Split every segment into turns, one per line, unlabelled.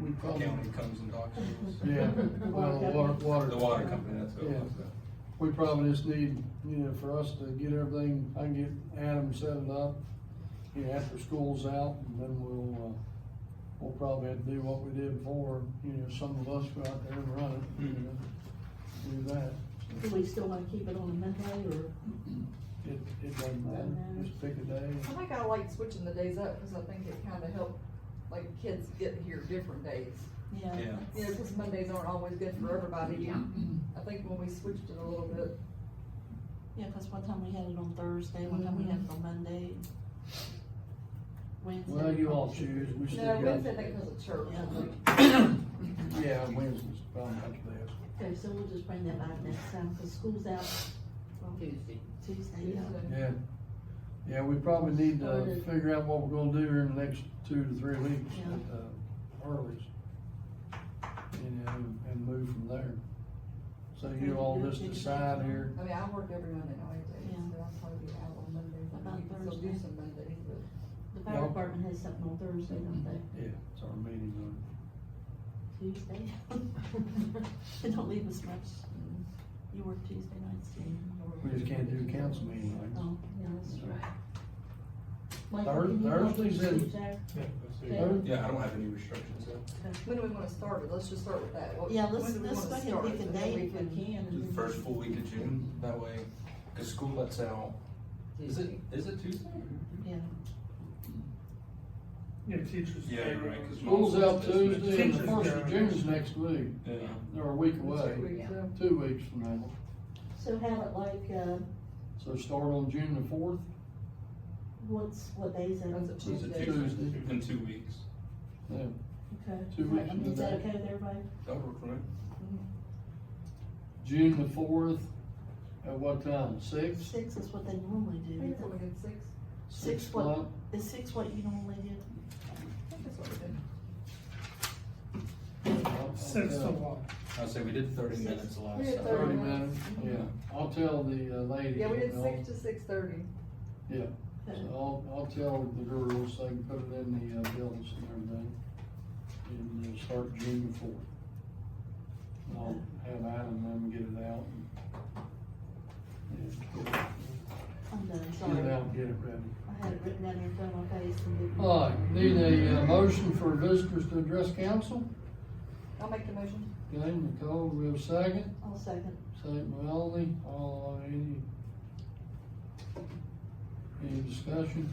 the county comes and talks to us.
Yeah, well, the water, water.
The water company, that's what it
Yeah.
was.
We probably just need, you know, for us to get everything, I can get Adam set it up, you know, after school's out, and then we'll, uh, we'll probably have to do what we did before, you know, some of us go out there and run it, you
Mhm.
know, do that.
Do we still wanna keep it on a Monday or?
It, it doesn't matter, just pick a day.
I think I like switching the days up, cause I think it kinda helped, like, kids get here different days.
Yeah,
You know, cause Mondays aren't always good for everybody, I think when we switched it a little bit,
Yeah, cause one time we had it on Thursday, one time we had it on Monday. Wednesday.
Well, you all choose, we still
no,
got.
Wednesday, I think was a church. I think.
Yeah, Wednesday's probably not the best.
Okay, so we'll just bring that back next time, cause school's out
Tuesday.
Tuesday, yeah.
Tuesday.
Yeah, yeah, we probably need
Or
to
the-
figure out what we're gonna do in the next two to three weeks
Yeah.
at the earliest. And, and, and move from there. So you all just decide here,
I mean, I work every Monday, night, days,
Yeah.
so I'll probably be out on Mondays, I
About
mean, you can still do
Thursday.
some Mondays, but.
The fire
Yeah.
department has something on Thursday, don't they?
yeah, it's our meeting on.
Tuesday. They don't leave us much. You work Tuesday nights, do
We just can't do council meeting nights.
Oh, yeah, that's right. Michael,
Thir-
can you help
Thursday's
me
in-
keep track?
Thir-
yeah, I don't have any restrictions, so
When do we wanna start it? Let's just start with that. What-
Yeah,
when
let's,
do we
let's go
wanna
ahead and
start
pick a
so that
date
we
if
can-
we can.
do the first full week of June, that way, cause school lets out, is it, is it Tuesday?
Yeah.
Yeah, teachers.
Yeah, you're right, cause.
School's out Tuesday and the
Teachers'
first of
Day.
June's next week,
Yeah,
or a week
Two
away,
weeks, yeah.
two weeks from now.
So have it like, uh,
So start on June the fourth,
what's, what days are?
That's a
so it's a
Tuesday.
Tuesday,
Tuesday.
in two weeks,
yeah,
Okay.
Two weeks
I mean, Is that
from
okay with everybody?
that'll work for me.
June the fourth, at what time, six?
Six is what they normally
I think
do.
that's what we did, six.
Six what, is six what you normally do?
I think that's what we did.
Six to one.
I say we did thirty
Six.
minutes
We
last
did
time.
Thirty minutes, yeah, I'll tell the uh, ladies.
Yeah, we did
you know,
six to six thirty.
so I'll, I'll tell the girls, they can put it in the uh, bills and everything, and uh, start June the fourth. And I'll have Adam and them get it out. and- yeah,
I'm done,
Get it
sorry.
out, and get it ready.
I had it written down in front of my face and didn't.
All right, need a uh, motion for visitors to address council,
I'll make the motion.
okay, Nicole, we have a second?
I'll second.
Second by Alden, all, any, any discussion?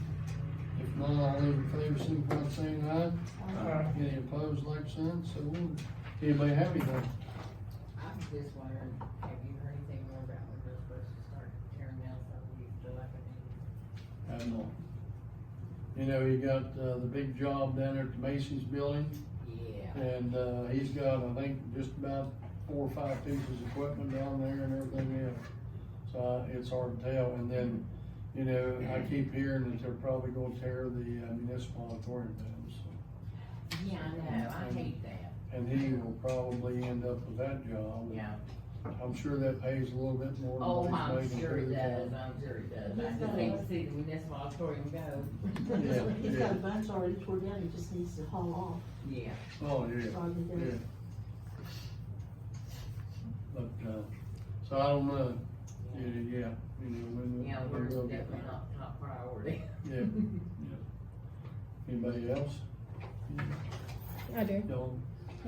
If not, all those in favor, signify by saying aye.
Uh,
Any opposed, like sign, so ordered. Anybody have anything?
I'm just wondering, have you heard anything more about when they're supposed to start tearing down some of these dilapidated?
Have not. You know, he got, uh, the big job down there at the Macy's building,
Yeah.
and, uh, he's got, I think, just about four or five pieces of equipment down there and everything else. So uh, it's hard to tell, and then, you know, I keep hearing that they're probably gonna tear the uh, municipal auditorium down, so.
Yeah, I know, I hate that,
And he will probably end up with that job.
yeah.
I'm sure that pays a little bit more. than
Oh,
what he's
I'm
making
sure
through
it
the
does,
job.
I'm sure it does. I just hate to see the municipal auditorium go.
Yeah,
He's got
yeah.
a bunch already tore down, he just needs to haul
Yeah.
Oh,
off,
yeah,
rather
yeah.
than,
But, uh, so I don't know, yeah, yeah, you know, when.
Yeah,
when
we're
we'll
definitely
get there.
not top priority.
Yeah, anybody else?
I do.
Y'all,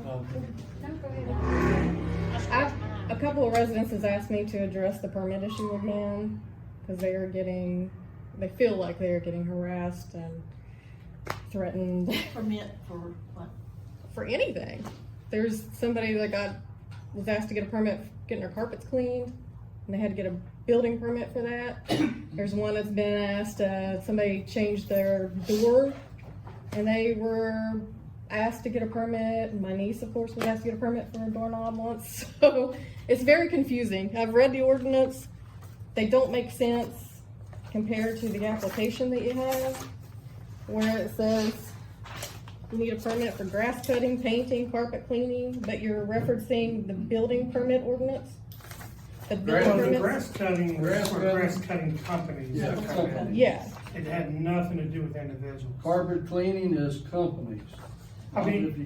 um,
I, a couple of residents has asked me to address the permit issue with them because they are getting, they feel like they are getting harassed and threatened
permit for what?
for anything. There's somebody that got was asked to get a permit for getting their carpets cleaned, and they had to get a building permit for that. There's one that's been asked uh, somebody changed their door, and they were asked to get a permit. My niece, of course, was asked to get a permit for a doorknob once. So it's very confusing. I've read the ordinance; they don't make sense compared to the application that you have, where it says you need a permit for grass cutting, painting, carpet cleaning, but you're referencing the building permit ordinance? The building
Grass-
Well, the
permit?
grass cutting was
Grass
for
cutting.
grass cutting companies.
Yeah.
that come in.
Yeah,
It had nothing to do with individuals.
carpet cleaning is companies.
I mean-
If you